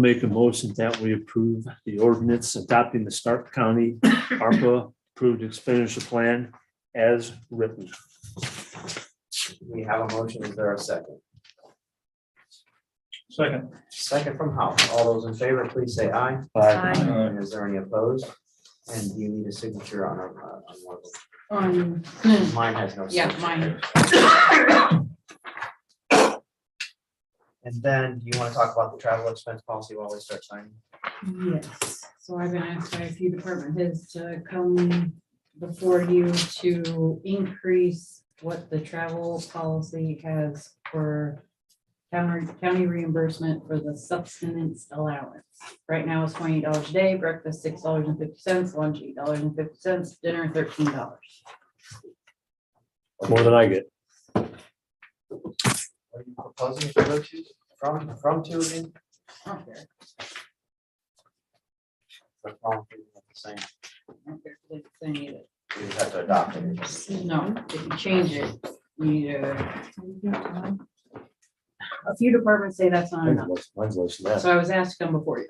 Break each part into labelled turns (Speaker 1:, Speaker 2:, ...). Speaker 1: Make a motion that we approve the ordinance adopting the Stark County ARPA approved expenditure plan as written.
Speaker 2: We have a motion. Is there a second?
Speaker 3: Second.
Speaker 2: Second from Howard. All those in favor, please say aye.
Speaker 1: Aye.
Speaker 3: Aye.
Speaker 2: And is there any opposed? And do you need a signature on, a- uh, on one? of
Speaker 4: Um,
Speaker 2: them? Mine has no.
Speaker 4: yeah,
Speaker 2: signature.
Speaker 4: mine.
Speaker 2: And then do you want to talk about the travel expense policy while we start signing?
Speaker 4: Yes, so I've been asked by a few department heads to come before you to increase what the travel policy has for county, county reimbursement for the subsistence allowance. Right now it's twenty dollars a day, breakfast six dollars and fifty cents, lunch eight dollars and fifty cents, dinner thirteen dollars.
Speaker 1: More than I get.
Speaker 2: Are you proposing to go to, from, from to again?
Speaker 4: I don't care,
Speaker 2: Or from to, Same,
Speaker 4: I don't care if it's any of it.
Speaker 2: we just have to adopt it.
Speaker 4: No, if you change it, you need a. A few departments say that's not enough,
Speaker 1: Mine's less than that.
Speaker 4: so I was asked to come before you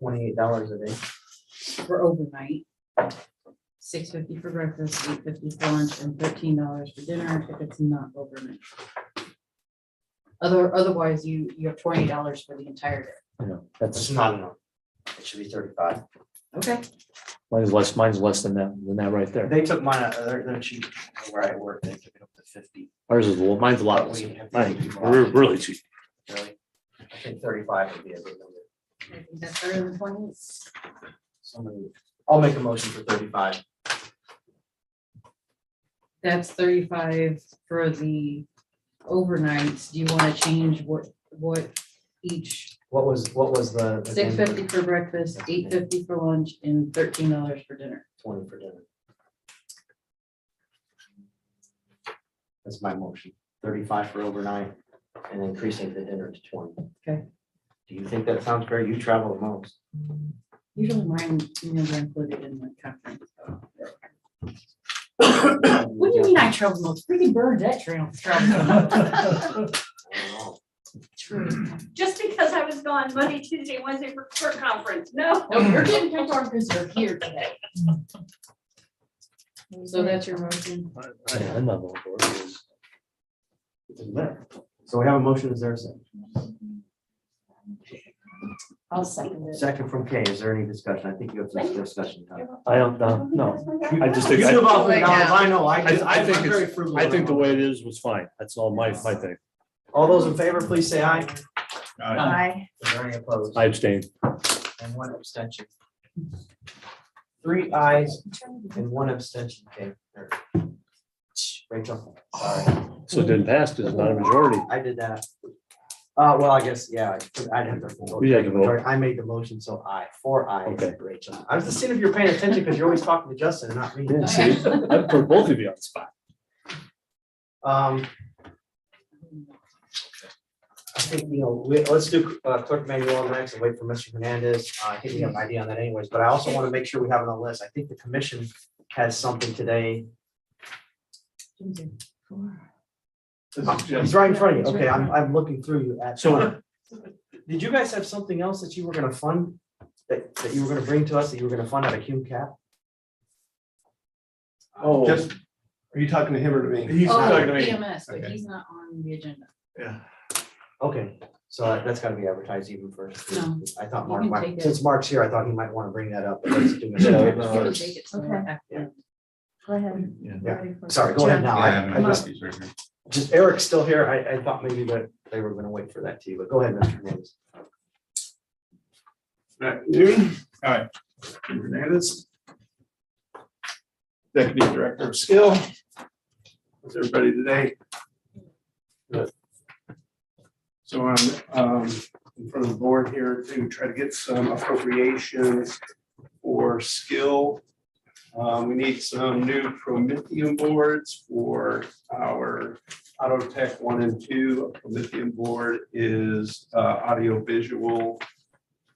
Speaker 2: Twenty-eight dollars a day.
Speaker 4: for overnight. Six fifty for breakfast, eight fifty for lunch, and thirteen dollars for dinner if it's not overnight. Other, otherwise, you, you have twenty dollars for the entire day.
Speaker 1: Yeah, That's,
Speaker 2: It's not enough. It should be thirty-five.
Speaker 4: Okay.
Speaker 1: mine's less, mine's less than that, than that right there.
Speaker 2: They took mine, uh, they're, they're cheap where I work. They took it up to fifty.
Speaker 1: Ours is, a little- mine's a lot.
Speaker 2: But
Speaker 1: less.
Speaker 2: we have to
Speaker 1: Mine,
Speaker 2: keep it
Speaker 1: we're
Speaker 2: up.
Speaker 1: really cheap.
Speaker 2: Really? I think thirty-five would be a good number.
Speaker 4: I think That's better than twenty.
Speaker 2: Somebody, I'll make a motion for thirty-five.
Speaker 4: That's thirty-five for the overnights. Do you want to change what, what each
Speaker 2: What was, what was the? the
Speaker 4: Six
Speaker 2: thing for
Speaker 4: fifty for breakfast, eight fifty for lunch, and thirteen dollars for dinner.
Speaker 2: Twenty for dinner. That's my motion, thirty-five for overnight and increasing the dinner to twenty.
Speaker 4: Okay.
Speaker 2: Do you think that sounds fair? You travel the most.
Speaker 4: Usually mine, you know, are included in the conference. What do you mean I travel most? Freaking bird that trail.
Speaker 2: I don't know.
Speaker 4: True.
Speaker 5: Just because I was gone Monday, Tuesday, Wednesday for court conference, no.
Speaker 4: No, you're getting kept on because you're here today. So that's your motion.
Speaker 1: I- I- I'm not going for it.
Speaker 2: It doesn't matter. So we have a motion, is there a second?
Speaker 4: I'll second
Speaker 2: Second from Kay, is there any discussion? I think you have some discussion. Tom.
Speaker 1: I don't, no, no. I just
Speaker 2: You
Speaker 1: think,
Speaker 2: do
Speaker 1: I,
Speaker 2: about three dollars, I know,
Speaker 1: I-
Speaker 2: I.
Speaker 1: I think
Speaker 2: I'm
Speaker 1: it's-
Speaker 2: very frugal
Speaker 1: I
Speaker 2: with
Speaker 1: think the
Speaker 2: my
Speaker 1: way it is was fine. That's all my, my thing.
Speaker 2: money. All those in favor, please say aye.
Speaker 3: Aye.
Speaker 2: Is there any opposed?
Speaker 1: I abstain.
Speaker 2: And one abstention. Three ayes and one abstention, Kay. or- Rachel, sorry,
Speaker 1: So it didn't pass because it's not a majority.
Speaker 2: I did that. Uh, well, I guess, yeah, I- I'd have to. vote.
Speaker 1: You had to vote.
Speaker 2: I made the motion, so aye, four ayes,
Speaker 1: Okay.
Speaker 2: Rachel. I was just seeing if you're paying attention because you're always talking to Justin and not me.
Speaker 1: Yeah, see, I put both of you on the spot.
Speaker 2: Um, I think, you know, we, let's do uh, clerk manual next and wait for Mr. Hernandez. Uh, I think we have an idea on that anyways, but I also want to make sure we have it on the list. I think the commission has something today.
Speaker 4: Oh,
Speaker 2: It's right in front of you. Okay, I'm, I'm looking through you at.
Speaker 1: So-
Speaker 2: Did you guys have something else that you were gonna fund, that, that you were gonna bring to us, that you were gonna fund out of Hume Cap?
Speaker 6: Oh,
Speaker 3: Just-
Speaker 6: are you talking to him or to me?
Speaker 3: He's talking to
Speaker 4: Oh,
Speaker 3: me.
Speaker 4: EMS, but
Speaker 6: Okay.
Speaker 4: he's not on the agenda.
Speaker 2: Okay, so that- that's gotta be advertised even first.
Speaker 4: No.
Speaker 2: I thought
Speaker 4: You
Speaker 2: Mark,
Speaker 4: can
Speaker 2: might-
Speaker 4: take it.
Speaker 2: since Mark's here, I thought he might want to bring that up. but let's do it.
Speaker 1: Yeah,
Speaker 4: You
Speaker 1: no,
Speaker 4: can
Speaker 1: it's-
Speaker 4: take it somewhere after.
Speaker 7: Go ahead.
Speaker 6: Yeah.
Speaker 7: Ready for-
Speaker 2: Sorry, go ahead now. I-
Speaker 6: Yeah,
Speaker 2: I
Speaker 6: I'm-
Speaker 2: just-
Speaker 6: he's right here.
Speaker 2: Just Eric's still here. I, I thought maybe that they were gonna wait for that too, but go ahead, Mr. Hernandez.
Speaker 6: Matt Noon. Hi. Jim Hernandez. Deputy Director of Skill. How's everybody today? Good. So I'm um, in front of the board here to try to get some appropriations for skill. Um, We need some new Prometheum boards for our Auto Tech one and two. Prometheum board is uh, audio visual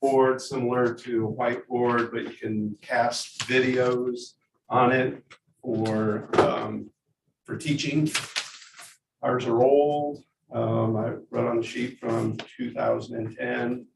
Speaker 6: board similar to a whiteboard, but you can cast videos on it for, um, for teaching. Ours are old. Um, I wrote on the sheet from two thousand and ten.